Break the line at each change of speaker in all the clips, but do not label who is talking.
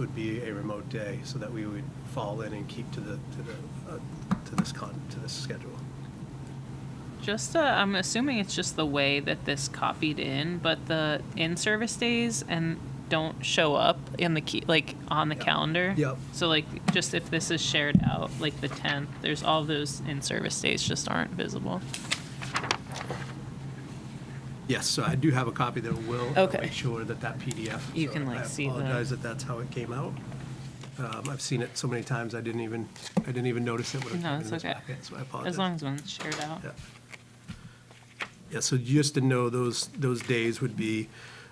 would be a remote day, so that we would fall in and keep to the, to the, uh, to this con, to this schedule.
Just, uh, I'm assuming it's just the way that this copied in, but the in-service days and don't show up in the key, like on the
Yeah.
calendar.
Yep.
So like, just if this is shared out, like the 10th, there's all those in-service days just aren't visible.
Yes, so I do have a copy that will uh,
Okay.
make sure that that PDF.
You
so
can, like, see the-
I apologize that that's how it came out. Um, I've seen it so many times, I didn't even, I didn't even notice it when it
No,
came in
it's
this
okay.
packet, so I apologize.
As long as one's shared out.
Yeah. Yeah, so just to know, those, those days would be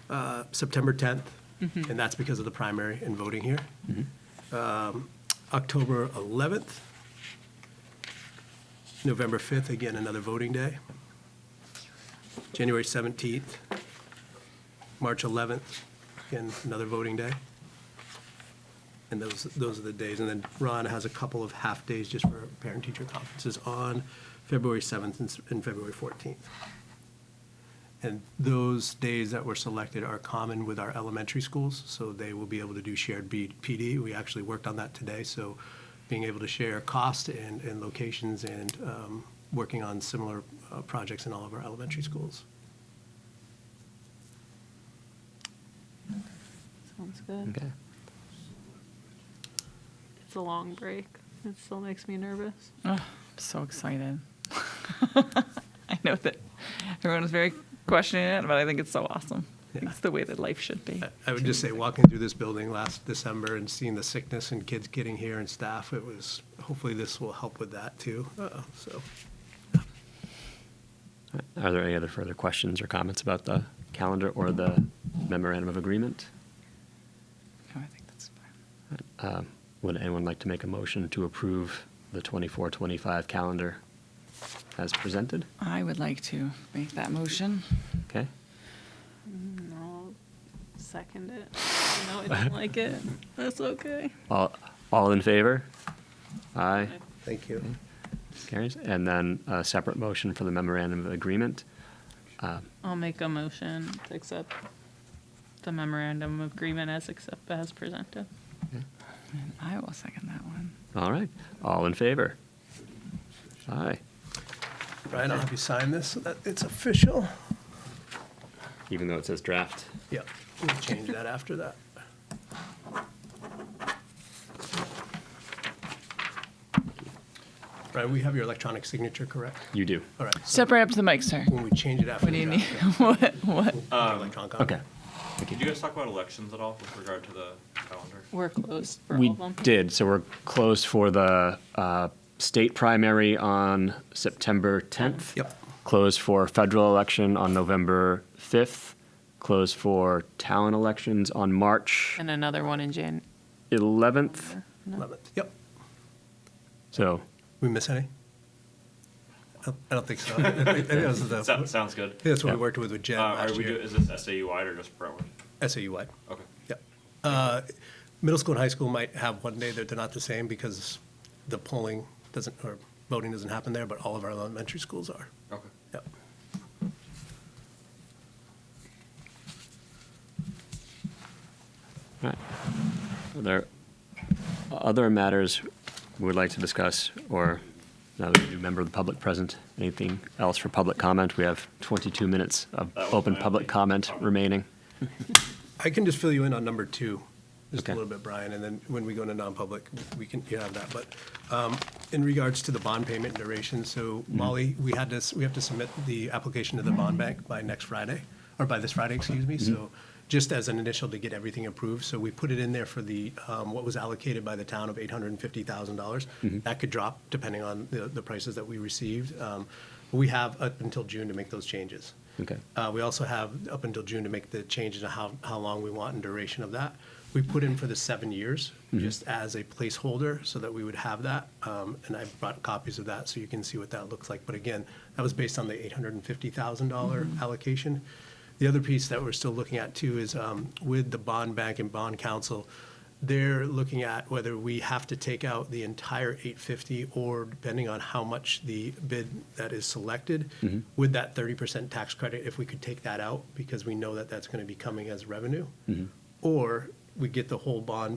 uh, September 10th, and that's because of the primary and voting here. Um, October 11th, November 5th, again, another voting day. January 17th, March 11th, again, another voting day. And those, those are the days. And then Ron has a couple of half-days just for parent-teacher conferences on February 7th and s- and February 14th. And those days that were selected are common with our elementary schools, so they will be able to do shared B- PD. We actually worked on that today, so being able to share cost and, and locations and um, working on similar uh, projects in all of our elementary schools.
Sounds good.
Okay.
It's a long break. It still makes me nervous.
So excited. I know that everyone was very questioning it, but I think it's so awesome.
Yeah.
It's the way that life should be.
I- I would just say, walking through this building last December and seeing the sickness and kids getting here and staff, it was, hopefully this will help with that too. Uh, So,
Are there any other further questions or comments about the calendar or the memorandum of agreement?
No, I think that's fine.
Would anyone like to make a motion to approve the 24-25 calendar as presented?
I would like to make that motion.
Okay,
No, second it. No, I don't like it.
That's okay.
all, all in favor? Aye,
thank you.
carries. And then a separate motion for the memorandum of agreement.
I'll make a motion to accept the memorandum of agreement as accept, as presented.
And I will second that one.
All right, all in favor? Aye,
Brian, I'll have you sign this so that it's official.
even though it says draft.
Yeah, we'll change that after that. Brian, we have your electronic signature, correct?
You do.
All right, so
Step right up to the mic, sir.
when we change it after.
What do you Uh,
the
need?
draft,
What, what?
we'll do electronic copy.
Okay.
Did you guys talk about elections at all with regard to the calendar?
We're closed for all
We
of them.
did, so we're closed for the uh, state primary on September 10th.
Yep.
Closed for federal election on November 5th. Closed for town elections on March
And another one in Jan,
11th.
Eleventh. Yep.
So,
We miss any? I I don't think so. I think- I think that was the-
Sounds, sounds good.
That's what we
Yeah.
worked with with Jen
Uh, are
last
we, do-
year.
is this SAU wide or just Brentwood?
SAU-wide.
Okay.
Yep. Uh, Middle school and high school might have one day that they're not the same because the polling doesn't, or voting doesn't happen there, but all of our elementary schools are.
Okay.
Yep.
all right. Are there other matters we would like to discuss, or another new member of the public present? Anything else for public comment? We have 22 minutes of
That was
open
my
public
only
comment
comment.
remaining.
I can just fill you in on number two, just a
Okay.
little bit, Brian, and then when we go into non-public, we can, you have that. But um, in regards to the bond payment duration, so
Mm-hmm.
Molly, we had this, we have to submit the application to the bond bank by next Friday, or by this Friday, excuse me,
Mm-hmm.
so just as an initial to get everything approved. So we put it in there for the, um, what was allocated by the town of
Mm-hmm.
$850,000. That could drop depending on the the prices that we received. Um, We have up until June to make those changes.
Okay.
Uh, We also have up until June to make the changes to how, how long we want and duration of that. We put in for the seven years, just as a placeholder, so that we would have that. Um, And I brought copies of that, so you can see what that looks like. But again, that was based on the $850,000 allocation. The other piece that we're still looking at too is um, with the bond bank and bond council, they're looking at whether we have to take out the entire 850 or depending on how much the bid that is selected with that 30% tax credit, if we could take that out because we know that that's going to be coming as revenue. Or we get the whole bond